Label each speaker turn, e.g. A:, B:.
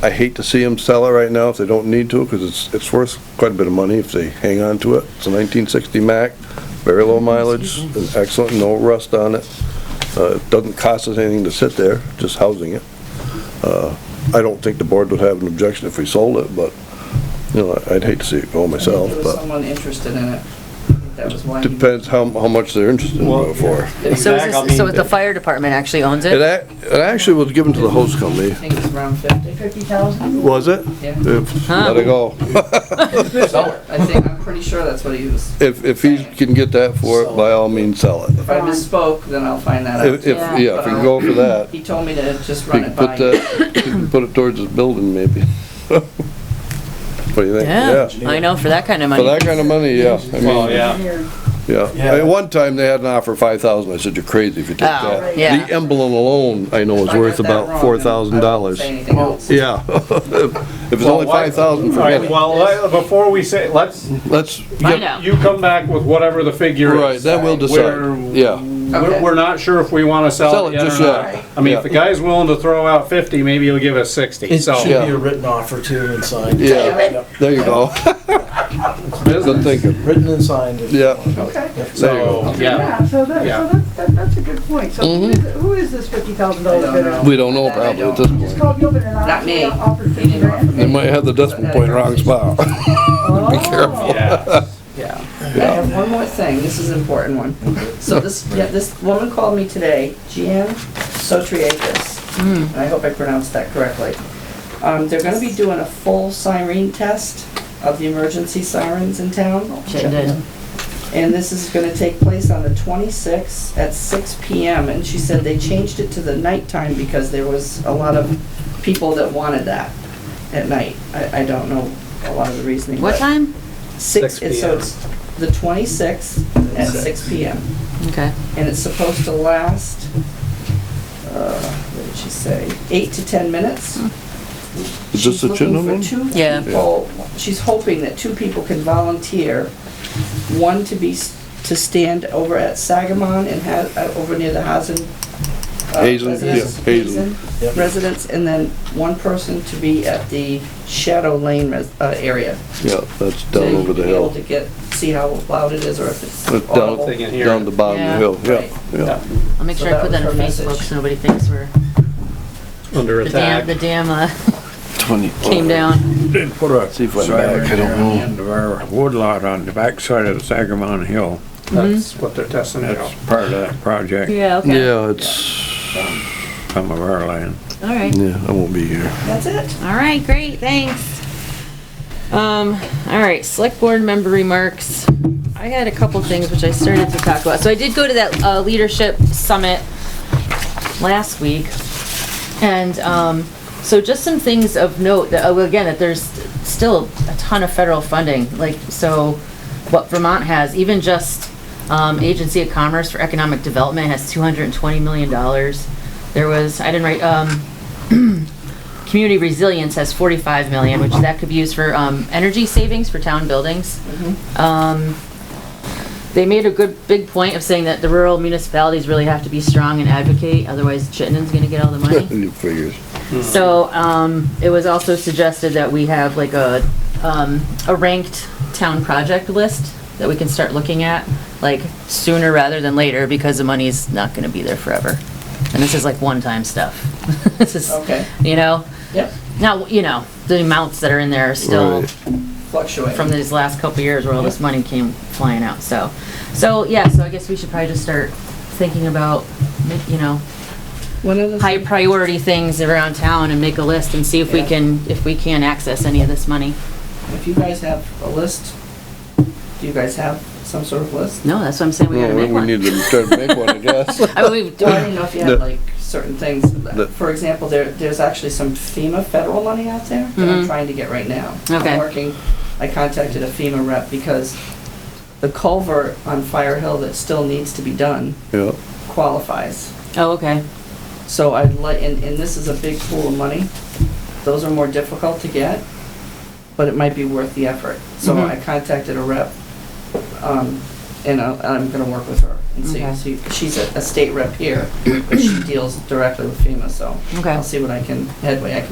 A: I hate to see them sell it right now if they don't need to, because it's, it's worth quite a bit of money if they hang on to it. It's a 1960 Mack, very low mileage, is excellent, no rust on it. Uh, It doesn't cost us anything to sit there, just housing it. Uh, I don't think the board would have an objection if we sold it, but, you know, I'd hate to see it go myself,
B: I think there was
A: but
B: someone interested in it. I think That was why. he-
A: depends how, how much they're interested in
C: Well,
A: it for.
D: So is
C: Back, I
D: this, so
C: mean,
D: the fire department actually owns
A: It,
D: it?
A: ac- it actually was given to the hose company.
B: I think it was around fifty. Fifty thousand?
A: Was it?
B: Yeah.
A: If- Let it go.
B: I think, I'm pretty sure that's what he was.
A: If, if he can get that for it, by all means, sell it.
B: If I misspoke, then I'll find that out.
A: If, if, yeah, if you go for that,
B: He told me to just
A: you
B: run
A: can
B: it
A: put
B: by you.
A: that, you can put it towards his building maybe. What do you think?
D: Yeah, I know, for that kind of
A: For
D: money.
A: that kind of money, Oh, yeah, I
C: Well,
A: mean,
C: yeah,
A: yeah. At one time, they had an offer five thousand, I said, you're crazy if you take
D: Oh,
A: that.
D: yeah.
A: The emblem alone, I know
B: If
A: is
B: I got
A: worth
B: that wrong, then
A: about
B: I
A: four
B: won't
A: thousand dollars.
B: Say anything else.
A: Yeah. If it's only
C: Well, why-
A: five thousand,
C: all right,
A: forget it.
C: well, let- before we say, let's,
A: Let's,
D: Find
A: yeah,
D: out.
C: you come back with whatever the figure is.
A: right, that will
C: We're-
A: decide, yeah.
B: Okay.
C: We're, we're not sure if we wanna
A: Sell
C: sell
A: it
C: it yet
A: just
C: or
A: yet.
C: not. I mean,
A: Yeah.
C: if the guy's willing to throw out fifty, maybe he'll give us sixty,
E: It should
C: so.
E: be
A: Yeah.
E: a written offer too and signed.
A: Yeah, there you go. Good thinking,
E: Written and signed. if you
A: Yeah.
E: want.
F: Okay.
A: there you go.
C: So, yeah,
F: Yeah, so that,
C: Yeah.
F: so that's, that- that's a good point. So who is, who is this fifty thousand
B: Mm-hmm. I
F: dollar
B: don't
F: bidder?
B: know.
A: We don't know probably at this
F: Just
A: point.
F: called me up and I
B: Not me.
F: offered
B: He
F: fifty
B: didn't offer
F: grand.
A: They might have the decimal point wrong spot.
F: Be
A: careful.
C: yeah.
B: Yeah. I have one more thing, this is an important one. So this, yeah, this woman called me today, Gian Sotriakis, and
D: Hmm.
B: I hope I pronounced that correctly. Um, they're gonna be doing a full siren test of the emergency sirens in town.
D: Shouldn't it?
B: And this is gonna take place on the twenty-sixth at six PM, and she said they changed it to the nighttime because there was a lot of people that wanted that at night. I, I don't know a lot of the reasoning.
D: What
B: but-
D: time?
B: Six,
E: 6
B: it's- so
E: PM.
B: it's the 26th at six PM,
D: Okay.
B: and it's supposed to last, uh, what did she say, eight to 10 minutes?
A: Hmm. Is this the chin one?
B: She's looking for
D: Yeah.
B: two people, she's hoping that two people can volunteer, one to be, s- to stand over at Sagamon and have, over near the Hazen. uh,
A: Hazen,
B: residence-
A: yeah, Hazen.
E: Yep.
B: Residence, and then one person to be at the Shadow Lane res- uh, area.
A: Yeah, that's down
B: to
A: over the
B: be
A: hill.
B: able to get, see how loud it is or if it's
A: It's down,
B: audible.
C: Oh, thing in here.
A: down the bottom
D: Yeah.
A: of the hill, yeah, yeah.
D: I'll make
B: So
D: sure I
B: that
D: put
B: was
D: that on
B: her
D: Facebook
B: message.
D: so nobody thinks we're,
C: Under
D: the dam, the
C: attack.
D: dam, uh,
A: Twenty.
D: came down.
G: Put
A: See if
G: a
A: I'm back, I
G: siren
A: don't know.
G: end of our woodlot on the backside of the Sagamon Hill.
C: That's
D: Mhm.
C: what they're testing out.
G: That's part of that project,
D: Yeah, okay.
A: Yeah, it's,
G: some of our land.
D: All right.
A: yeah, I won't be here.
B: That's it.
D: All right, great, thanks. Um, all right, select board member remarks. I had a couple things which I started to talk about. So I did go to that, uh, leadership summit last week. And, um, so just some things of note that, oh, again, that there's still a ton of federal funding, like, so what Vermont has, even just, um, Agency of Commerce for Economic Development has two hundred and twenty million dollars. There was, I didn't write, um, Community resilience has 45 million, which that could be used for um, energy savings for town buildings. Um, They made a good, big point of saying that the rural municipalities really have to be strong and advocate, otherwise Chittenden's gonna get all the money.
A: New figures.
D: So, um, it was also suggested that we have like a, um, a ranked town project list that we can start looking at, like sooner rather than later, because the money's not gonna be there forever. And this is like one-time stuff. This is,
B: Okay.
D: you know?
B: Yep,
D: Now, you know, the amounts that are in there are still
A: Right.
B: fluctuate.
D: from these last couple years where all this money came flying out, so. So, yeah, so I guess we should probably just start thinking about, you know,
B: One of the,
D: high priority things around town and make a list and see if we
B: Yeah.
D: can, if we can access any of this money.
B: if you guys have a list, do you guys have some sort of list?
D: No, that's what I'm saying, we
A: Well,
D: gotta
A: we-
D: make
A: we need
D: one.
A: to start to make one, I guess.
D: I mean,
B: Well, I
D: we-
B: didn't know if you
A: The-
B: had like certain things.
A: The-
B: For example, there, there's actually some FEMA federal money out there that I'm
D: Mhm.
B: trying to get right now.
D: Okay.
B: I'm working, I contacted a FEMA rep because the culvert on Fire Hill that still needs to be done
A: Yeah,
B: qualifies.
D: Oh, okay,
B: So I'd like, and, and this is a big pool of money. Those are more difficult to get, but it might be worth the effort. So
D: Mhm.
B: I contacted a rep, um, and I'll- I'm gonna work with her and see,
D: Okay.
B: see, she's a, a state rep here, but she deals directly with FEMA, so
D: okay.
B: I'll see what I can, headway I can